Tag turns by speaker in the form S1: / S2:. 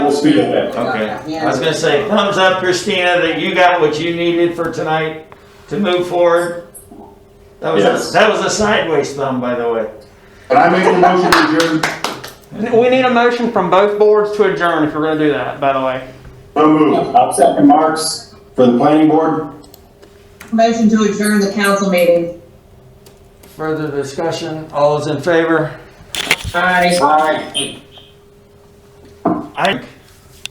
S1: speed limit.
S2: Okay,
S3: Yeah.
S2: I was gonna say, thumbs up Christina, that you got what you needed for tonight to move forward. That was,
S1: Yes.
S3: a- that was a sideways thumb, by the way.
S1: And I make a motion to adjourn,
S4: We need a motion from both boards to adjourn if we're gonna do that, by the way.
S1: so move. I'll second Mark's for the planning board.
S2: motion to adjourn the council meeting.
S3: Further discussion, all is in favor?
S2: Aye.
S1: Aye.
S3: I,